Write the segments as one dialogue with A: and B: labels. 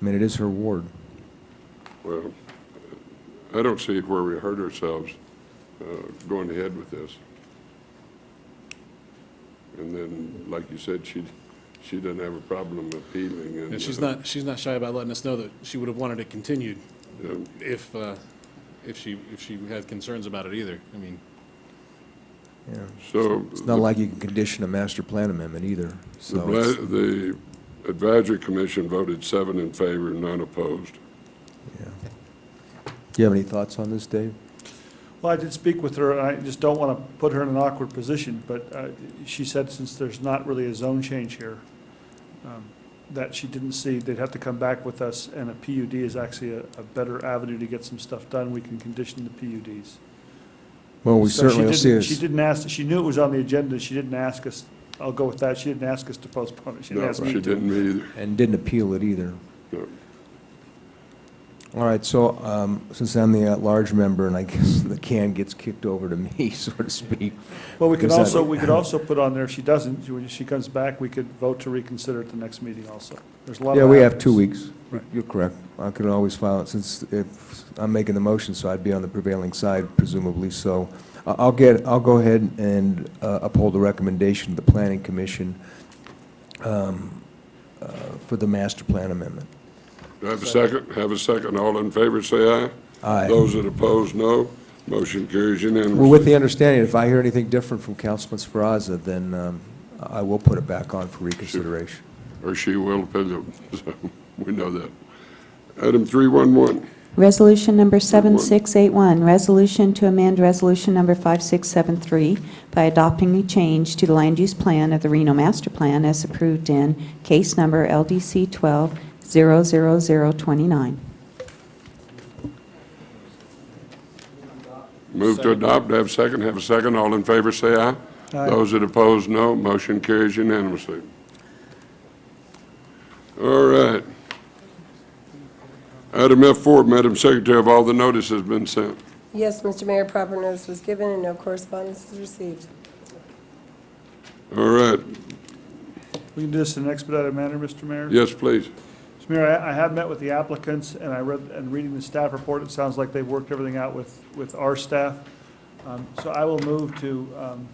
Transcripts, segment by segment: A: I mean, it is her ward.
B: Well, I don't see where we hurt ourselves uh, going ahead with this. And then, like you said, she, she doesn't have a problem appealing and.
C: And she's
B: uh,
C: not, she's not shy about letting us know that she would have wanted it continued
B: uh,
C: if, uh, if she, if she had concerns about it either. I mean,
A: Yeah.
B: So.
A: It's not like you can condition a master plan amendment either,
B: The
A: so. it's-
B: bla- the advisory commission voted seven in favor, none opposed.
A: yeah. Do you have any thoughts on this, Dave?
D: Well, I did speak with her, and I just don't want to put her in an awkward position, but uh, she said since there's not really a zone change here, um, that she didn't see, they'd have to come back with us, and a PUD is actually a a better avenue to get some stuff done. We can condition the PUDs.
A: Well, we
D: So she
A: certainly will see
D: didn't-
A: this.
D: She didn't ask, she knew it was on the agenda, she didn't ask us, I'll go with that, she didn't ask us to postpone it, she didn't
B: No,
D: ask me
B: she
D: to.
B: didn't either.
A: And didn't appeal it either.
B: No.
A: All right, so um, since I'm the at-large member, and I guess the can gets kicked over to me, so to speak,
D: Well, we could
A: Exactly.
D: also, we could also put on there, if she doesn't, when she comes back, we could vote to reconsider at the next meeting also. There's a lot of.
A: Yeah, we have two
D: avenues.
A: weeks.
D: Right.
A: You're correct. I could always file it, since if, I'm making the motion, so I'd be on the prevailing side presumably, so I- I'll get, I'll go ahead and uh, uphold the recommendation of the Planning Commission um, uh, for the master plan amendment.
B: Do I have a second? Have a second. All in favor, say aye.
A: Aye.
B: Those that oppose, no. Motion carries
A: Well, with
B: unanimously.
A: the understanding, if I hear anything different from Councilman Speraza, then um, I will put it back on for reconsideration.
B: Or she will appeal, so we know that. Item 311,
E: Resolution number
B: Good one.
E: 7681, resolution to amend resolution number 5673 by adopting a change to the land use plan of the Reno Master Plan as approved in case number LDC 12-00029.
B: move to adopt, have a second, have a second. All in favor, say aye.
D: Aye.
B: Those that oppose, no. Motion carries unanimously. All right. Item F4, Madam Secretary, have all the notices been sent?
F: Yes, Mr. Mayor, proper notice was given and no correspondence was received.
B: All right,
D: We can do this in an expedited manner, Mr. Mayor?
B: yes, please.
D: Mr. Mayor, I I have met with the applicants, and I read, and reading the staff report, it sounds like they've worked everything out with, with our staff. Um, So I will move to um,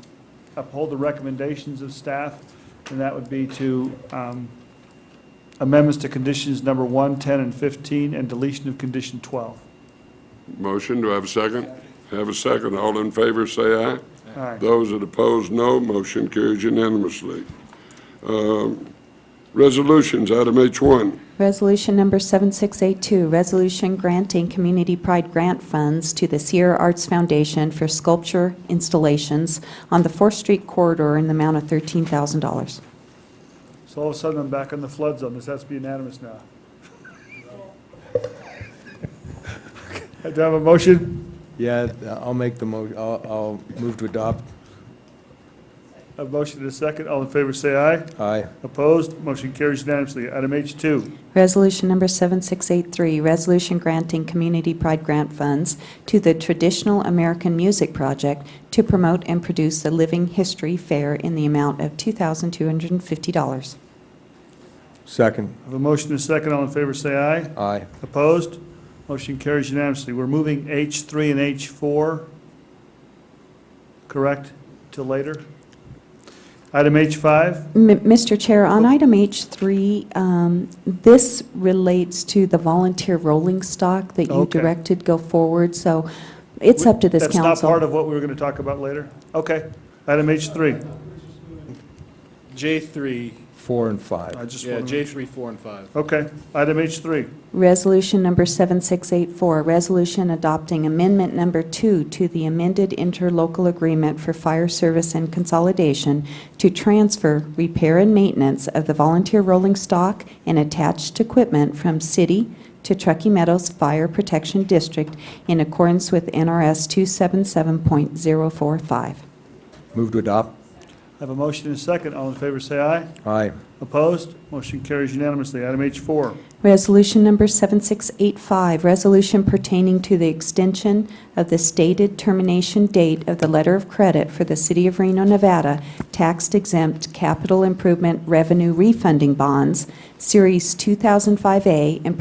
D: uphold the recommendations of staff, and that would be to um, amendments to conditions number one, 10, and 15, and deletion of condition 12.
B: Motion, do I have a second? Have a second. All in favor, say aye.
D: All right.
B: Those that oppose, no. Motion carries unanimously. Um, Resolutions, item H1.
E: Resolution number 7682, resolution granting community pride grant funds to the Sierra Arts Foundation for sculpture installations on the 4th Street corridor in the amount of $13,000.
D: So all of a sudden, I'm back on the flood zone. This has to be unanimous now. Do I have a motion?
A: Yeah, I'll make the mo, I'll, I'll move to adopt.
D: A motion and a second. All in favor, say aye.
A: Aye.
D: Opposed? Motion carries unanimously. Item H2,
E: Resolution number 7683, resolution granting community pride grant funds to the Traditional American Music Project to promote and produce the Living History Fair in the amount of $2,250.
A: Second.
D: I have a motion and a second. All in favor, say aye.
A: Aye.
D: Opposed? Motion carries unanimously. We're moving H3 and H4, correct, till later? Item H5,
E: M- Mr. Chair, on item H3, um, this relates to the volunteer rolling stock that you
D: Okay.
E: directed go forward, so it's up to this council.
D: that's not part of what we were going to talk about later? Okay. Item H3,
C: J three,
A: Four and five.
D: I just
C: yeah,
D: want
C: J
D: to,
C: three, four, and five.
D: okay. Item H3,
E: Resolution number 7684, resolution adopting amendment number two to the amended interlocal agreement for fire service and consolidation to transfer repair and maintenance of the volunteer rolling stock and attached equipment from city to Truckee Meadows Fire Protection District in accordance with NRS 277.045.
A: Move to adopt.
D: I have a motion and a second. All in favor, say aye.
A: Aye.
D: Opposed? Motion carries unanimously. Item H4,
E: Resolution number 7685, resolution pertaining to the extension of the stated termination date of the letter of credit for the City of Reno, Nevada tax exempt capital improvement revenue refunding bonds, Series 2005A, and